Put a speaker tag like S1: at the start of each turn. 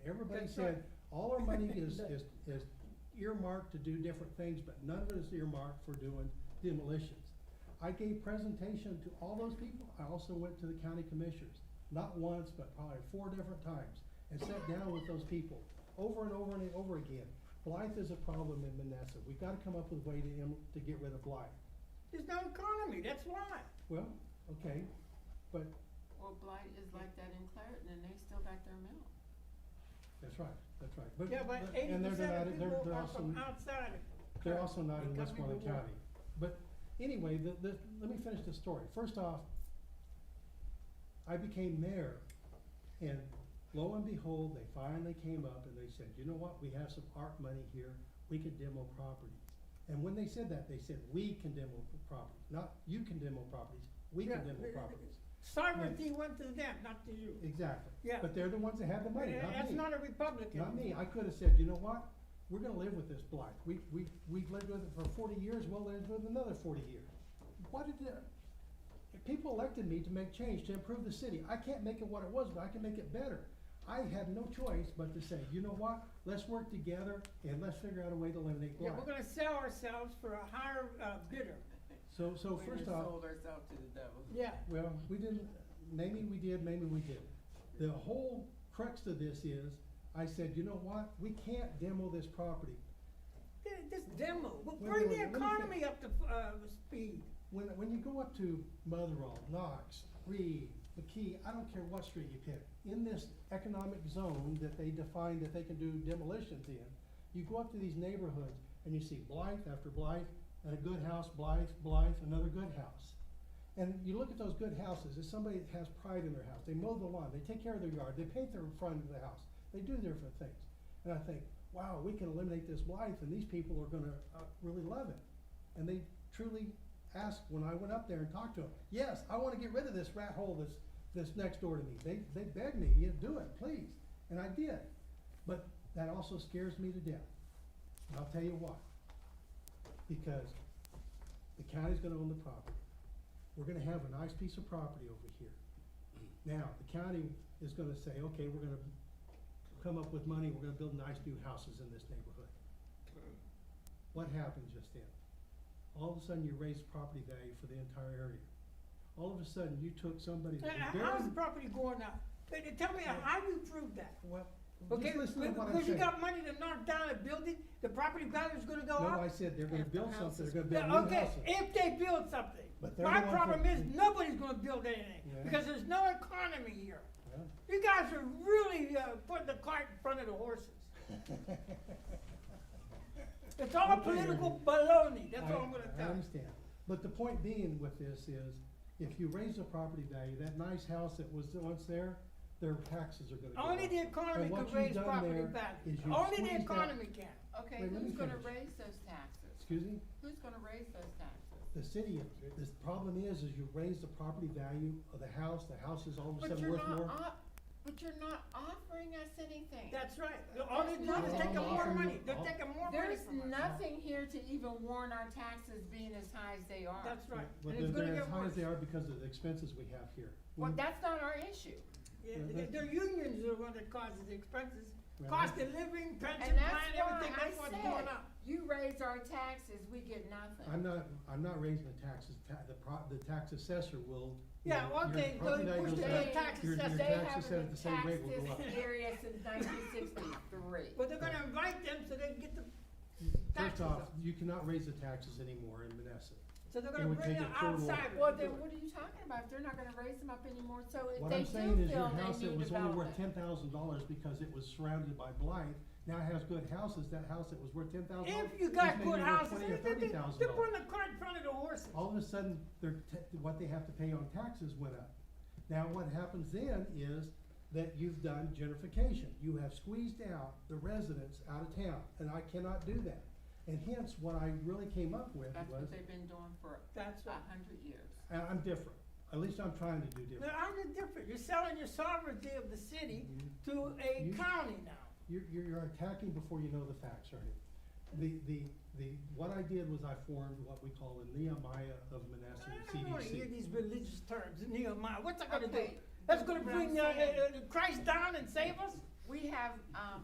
S1: Everybody
S2: That's
S1: said,
S2: right.
S1: all our money is, is, is earmarked to do different things, but none of it is earmarked for doing demolitions. I gave presentation to all those people, I also went to the county commissioners, not once, but probably four different times, and sat down with those people, over and over and over again. Blight is a problem in Menneson, we've gotta come up with a way to, em- to get rid of blight.
S2: There's no economy, that's why.
S1: Well, okay, but,
S3: Well, blight is like that in Clareton, and they still got their mill.
S1: that's right, that's right, but,
S2: Yeah, but
S1: but-
S2: eighty
S1: and they're
S2: percent
S1: not,
S2: of
S1: they're,
S2: people
S1: they're
S2: are
S1: also.
S2: from outside of.
S1: They're also not in
S2: Because we
S1: Westmoreland
S2: were warned.
S1: County. But anyway, the, the, let me finish the story. First off, I became mayor and lo and behold, they finally came up and they said, you know what, we have some art money here, we could demo properties. And when they said that, they said, we can demo properties, not you can demo properties, we can
S2: Yeah.
S1: demo properties.
S2: Sovereignty went to them, not to you.
S1: Exactly.
S2: Yeah.
S1: But they're the ones that have the money, not me.
S2: That's not a Republican.
S1: Not me, I could have said, you know what, we're gonna live with this blight, we, we, we've lived with it for forty years, we'll live with it another forty years. What did the, if people elected me to make change, to improve the city, I can't make it what it was, but I can make it better. I had no choice but to say, you know what, let's work together and let's figure out a way to eliminate
S2: Yeah,
S1: blight.
S2: we're gonna sell ourselves for a higher uh, bidder.
S1: So, so
S3: We
S1: first
S3: done
S1: off,
S3: sold ourselves to the devil.
S2: Yeah,
S1: Well, we didn't, maybe we did, maybe we didn't. The whole crux of this is, I said, you know what, we can't demo this property.
S2: Th- this demo, Well,
S1: Wait, wait,
S2: bring the
S1: wait, let me fin-
S2: economy up to, uh, speed.
S1: When, when you go up to Motherwell, Knox, Reed, McKee, I don't care what street you pick, in this economic zone that they define that they can do demolitions in, you go up to these neighborhoods and you see Blythe after Blythe, and a good house, Blythe, Blythe, another good house. And you look at those good houses, it's somebody that has pride in their house, they mow the lawn, they take care of their yard, they paint their front of the house, they do different things. And I think, wow, we can eliminate this Blythe and these people are gonna, uh, really love it. And they truly asked when I went up there and talked to them, yes, I wanna get rid of this rat hole that's, that's next door to me. They, they begged me, you do it, please, and I did. But that also scares me to death, and I'll tell you why. Because the county's gonna own the property. We're gonna have a nice piece of property over here. Now, the county is gonna say, okay, we're gonna come up with money, we're gonna build nice new houses in this neighborhood.
S2: Uh,
S1: What happened just then? All of a sudden, you raised property value for the entire area. All of a sudden, you took somebody
S2: Uh,
S1: that was very.
S2: How's the property going up? Uh, Tell me, how you prove that?
S1: Well,
S2: Okay,
S1: just listen to what I'm saying.
S2: because you got money to knock down a building, the property value's gonna go
S1: No, I
S2: up?
S1: said they're gonna
S3: Half the
S1: build something,
S3: houses.
S1: they're
S2: Yeah,
S1: gonna build new
S2: Uh, Okay,
S1: houses.
S2: if they build something.
S1: But they're
S2: My
S1: the ones
S2: problem
S1: that-
S2: is, nobody's gonna build anything,
S1: Yeah.
S2: because there's no economy here.
S1: Well,
S2: You guys are really, uh, putting the cart in front of the horses. It's all
S1: Okay.
S2: political baloney, that's all
S1: I-
S2: I'm gonna
S1: I
S2: tell you.
S1: understand, but the point being with this is, if you raise the property value, that nice house that was once there, their taxes are gonna go up.
S2: Only the
S1: And
S2: economy
S1: what
S2: can
S1: you've
S2: raise
S1: done
S2: property
S1: there is
S2: value,
S1: you've
S2: only
S1: squeezed
S2: the
S1: out-
S2: economy can.
S3: Okay,
S1: Wait, let me
S3: who's gonna
S1: finish.
S3: raise those taxes?
S1: Excuse me,
S3: Who's gonna raise those taxes?
S1: the city, the problem is, is you raise the property value of the house, the house is all of a
S3: But
S1: sudden
S3: you're
S1: worth
S3: not
S1: more.
S3: op- but you're not offering us anything.
S2: That's right, all they're doing is
S3: There's
S2: taking more
S1: nothing.
S2: money, they're taking more money
S3: There's
S2: from us.
S3: nothing here to even warn our taxes being as high as they are.
S2: That's right,
S1: But
S2: and it's
S1: they're,
S2: gonna
S1: they're
S2: get
S1: as high as
S2: worse.
S1: they are because of the expenses we have here.
S3: Well,
S1: Mm,
S3: that's not our issue.
S2: Yeah,
S1: Yeah,
S2: th-
S1: that's-
S2: their unions are the one that causes the expenses,
S1: well,
S2: cost of living, pension
S3: And that's
S2: plan,
S3: why
S2: everything,
S3: I
S2: that's what's
S3: said-
S2: going up.
S3: You raise our taxes, we get nothing.
S1: I'm not, I'm not raising the taxes, ta- the pro, the tax assessor will.
S2: Yeah,
S1: will- your
S2: okay, so
S1: property
S2: you
S1: value
S2: push
S1: goes
S2: the
S1: up,
S2: tax
S1: your- your
S2: assessor.
S3: They
S1: taxes
S3: haven't
S1: at the same rate will
S3: been
S1: go
S3: taxed this
S1: up.
S3: area since nineteen sixty-three.
S2: But they're gonna invite them so they can get the,
S1: First
S2: taxes
S1: off,
S2: up.
S1: you cannot raise the taxes anymore in Menneson.
S2: so they're
S1: It uh,
S2: gonna
S1: would
S2: bring
S1: take
S2: the
S1: a total of-
S2: outside.
S3: Well, then what are you talking about? If They're not gonna raise them up anymore, so if
S1: What
S3: they
S1: I'm saying
S3: do
S1: is your
S3: feel
S1: house
S3: they
S1: that
S3: need
S1: was only worth
S3: development.
S1: ten thousand dollars because it was surrounded by blight, now has good houses, that house that was worth ten thousand dollars.
S2: If you got good houses,
S1: Twenty or
S2: they-
S1: thirty
S2: they-
S1: thousand
S2: they're
S1: dollars.
S2: putting the cart in front of the horses.
S1: All of a sudden, their, ta- what they have to pay on taxes went up. Now, what happens then is that you've done gentrification. You have squeezed out the residents out of town, and I cannot do that. And hence, what I really came up with
S3: That's
S1: was,
S3: what they've been doing for
S2: That's
S3: a
S2: right.
S3: hundred years.
S1: and I'm different, at least I'm trying to do different.
S2: Now, I'm just different, you're selling your sovereignty of the city to a
S1: You-
S2: county now.
S1: You're, you're, you're attacking before you know the facts, Ernie. The, the, the, what I did was I formed what we call the Nehemiah of Manassas
S2: I don't wanna hear
S1: CDC.
S2: these religious terms, Nehemiah, what's that gonna do?
S3: Okay,
S2: That's gonna
S3: what I'm
S2: bring, uh, uh,
S3: saying-
S2: uh, Christ down and save us?
S3: we have, um,